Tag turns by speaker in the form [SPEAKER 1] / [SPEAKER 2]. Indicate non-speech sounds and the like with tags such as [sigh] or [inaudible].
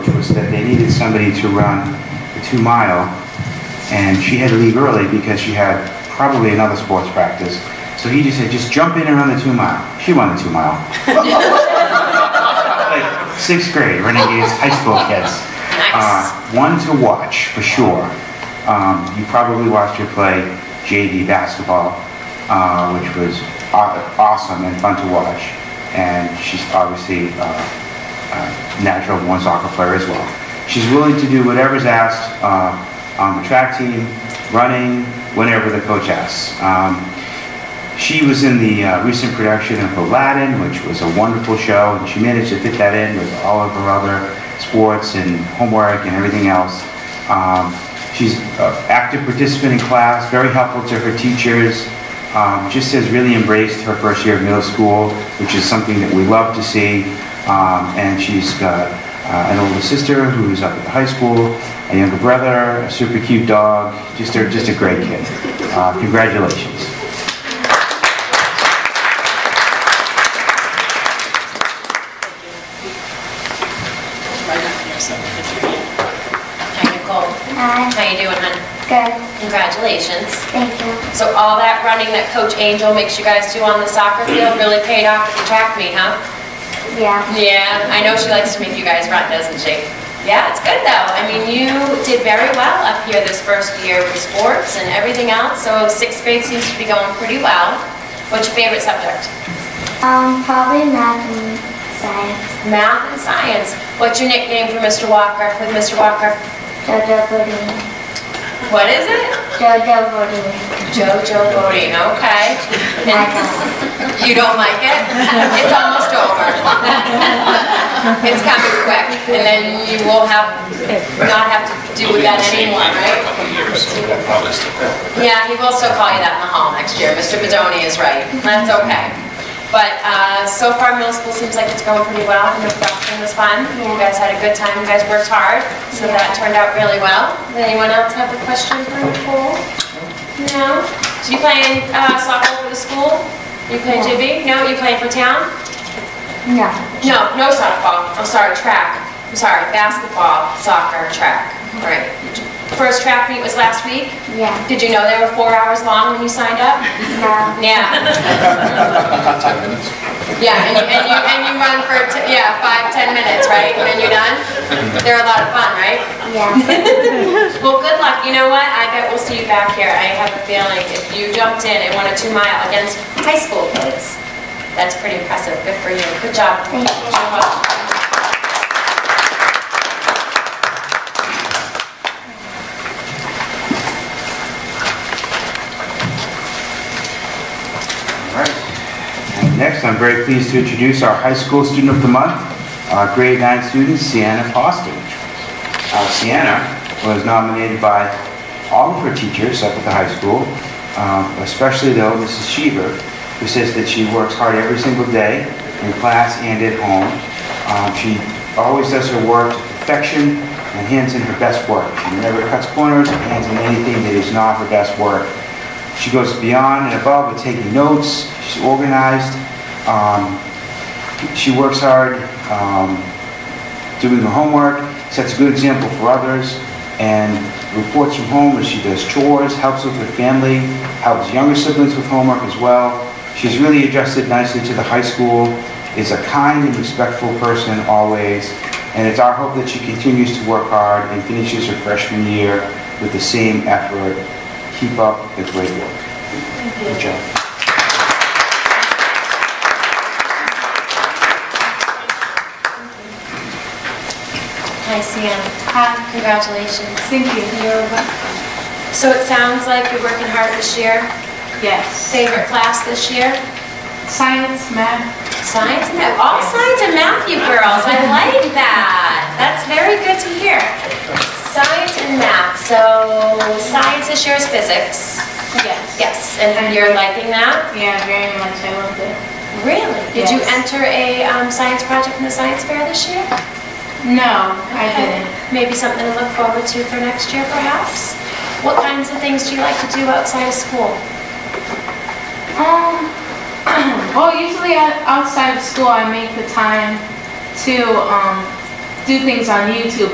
[SPEAKER 1] was that they needed somebody to run the two mile, and she had to leave early because she had probably another sports practice. So he just said, just jump in and run the two mile. She won the two mile. like sixth grade, Renegades high school kids. Uh, one to watch for sure. Um, you probably watched her play JV basketball, uh, which was aw- awesome and fun to watch. And she's obviously uh, uh, natural born soccer player as well. She's willing to do whatever's asked uh, on the track team, running, whenever the coach asks. Um, she was in the uh, recent production of Aladdin, which was a wonderful show, and she managed to fit that in with all of her other sports and homework and everything else. Um, she's an active participant in class, very helpful to her teachers, um, just has really embraced her first year of middle school, which is something that we love to see. Um, and she's got uh, an older sister who's up at the high school, a younger brother, a super cute dog, just a, just a great kid. Uh, congratulations.
[SPEAKER 2] Right up here, so it's right here. Hi, Nicole.
[SPEAKER 3] Hi.
[SPEAKER 2] How you doing, hon?
[SPEAKER 3] Good,
[SPEAKER 2] Congratulations.
[SPEAKER 3] thank you.
[SPEAKER 2] So all that running that Coach Angel makes you guys do on the soccer field really paid off at the track meet, huh?
[SPEAKER 3] Yeah,
[SPEAKER 2] Yeah, I know she likes to make you guys run, doesn't she? Yeah, it's good though. I mean, you did very well up here this first year with sports and everything else, so sixth grade seems to be going pretty well. What's your favorite subject?
[SPEAKER 3] um, probably math and science.
[SPEAKER 2] Math and science. What's your nickname for Mr. Walker, with Mr. Walker?
[SPEAKER 3] Jojo Bodine.
[SPEAKER 2] What is it?
[SPEAKER 3] Jojo Bodine.
[SPEAKER 2] Jojo Bodine, okay.
[SPEAKER 3] My God.
[SPEAKER 2] You don't like it? It's almost over. It's coming quick, and then you will have, not have to do with that anymore,
[SPEAKER 4] A
[SPEAKER 2] right?
[SPEAKER 4] couple of years, so we'll probably still go.
[SPEAKER 2] Yeah, he will still call you that in the hall next year. Mr. Bedoni is right. That's okay. But uh, so far, middle school seems like it's going pretty well, and the production was fun. You guys had a good time, you guys worked hard, so that turned out really well. Does anyone else have a question for Nicole? No? So you playing uh, soccer for the school? You play
[SPEAKER 3] No.
[SPEAKER 2] JV? No, you playing for town?
[SPEAKER 3] No,
[SPEAKER 2] No, no softball. I'm sorry, track. I'm sorry, basketball, soccer, track. All right. First track meet was last week.
[SPEAKER 3] yeah,
[SPEAKER 2] Did you know they were four hours long when you signed up?
[SPEAKER 3] no,
[SPEAKER 2] Yeah.
[SPEAKER 4] Ten minutes.
[SPEAKER 2] Yeah, and you, and you, and you run for, t- yeah, five, 10 minutes, right? And then you're done? They're a lot of fun, right?
[SPEAKER 3] yeah,
[SPEAKER 2] Well, good luck. You know what? I bet we'll see you back here. I have a feeling if you jumped in and won a two mile against high school kids, that's pretty impressive. Good for you. Good job.
[SPEAKER 3] Thank you.
[SPEAKER 2] You're welcome.
[SPEAKER 1] All right. And Next, I'm very pleased to introduce our High School Student of the Month, our grade nine student, Sienna Foster. Uh, Sienna was nominated by all of her teachers up at the high school, um, especially though Mrs. Sheever, who says that she works hard every single day in class and at home. Um, She always does her work to perfection and hands in her best work. She never cuts corners, and hands in anything that is not her best work. She goes beyond and above with taking notes. She's organized. Um, she works hard, um, doing her homework, sets a good example for others, and reports from home as she does chores, helps with her family, helps younger siblings with homework as well. She's really adjusted nicely to the high school, is a kind and respectful person always, and it's our hope that she continues to work hard and finishes her freshman year with the same effort keep up the great work. Good job.
[SPEAKER 2] Hi, Sam. Hi. Congratulations.
[SPEAKER 5] Thank you. You're welcome.
[SPEAKER 2] So it sounds like you're working hard this year.
[SPEAKER 5] Yes.
[SPEAKER 2] Favorite class this year?
[SPEAKER 5] Science, math.
[SPEAKER 2] Science and math. All science and math, you girls. I like that. That's very good to hear. Science and math. So science this year is physics.
[SPEAKER 5] Yes.
[SPEAKER 2] Yes, and you're liking that?
[SPEAKER 5] Yeah, very much. I loved it.
[SPEAKER 2] Really? Did you
[SPEAKER 5] Yes.
[SPEAKER 2] enter a um, science project in the science fair this year?
[SPEAKER 5] No, I didn't.
[SPEAKER 2] Maybe something to look forward to for next year, perhaps? What kinds of things do you like to do outside of school?
[SPEAKER 5] Um, [clears throat] well, usually o- outside of school, I make the time to um, do things on YouTube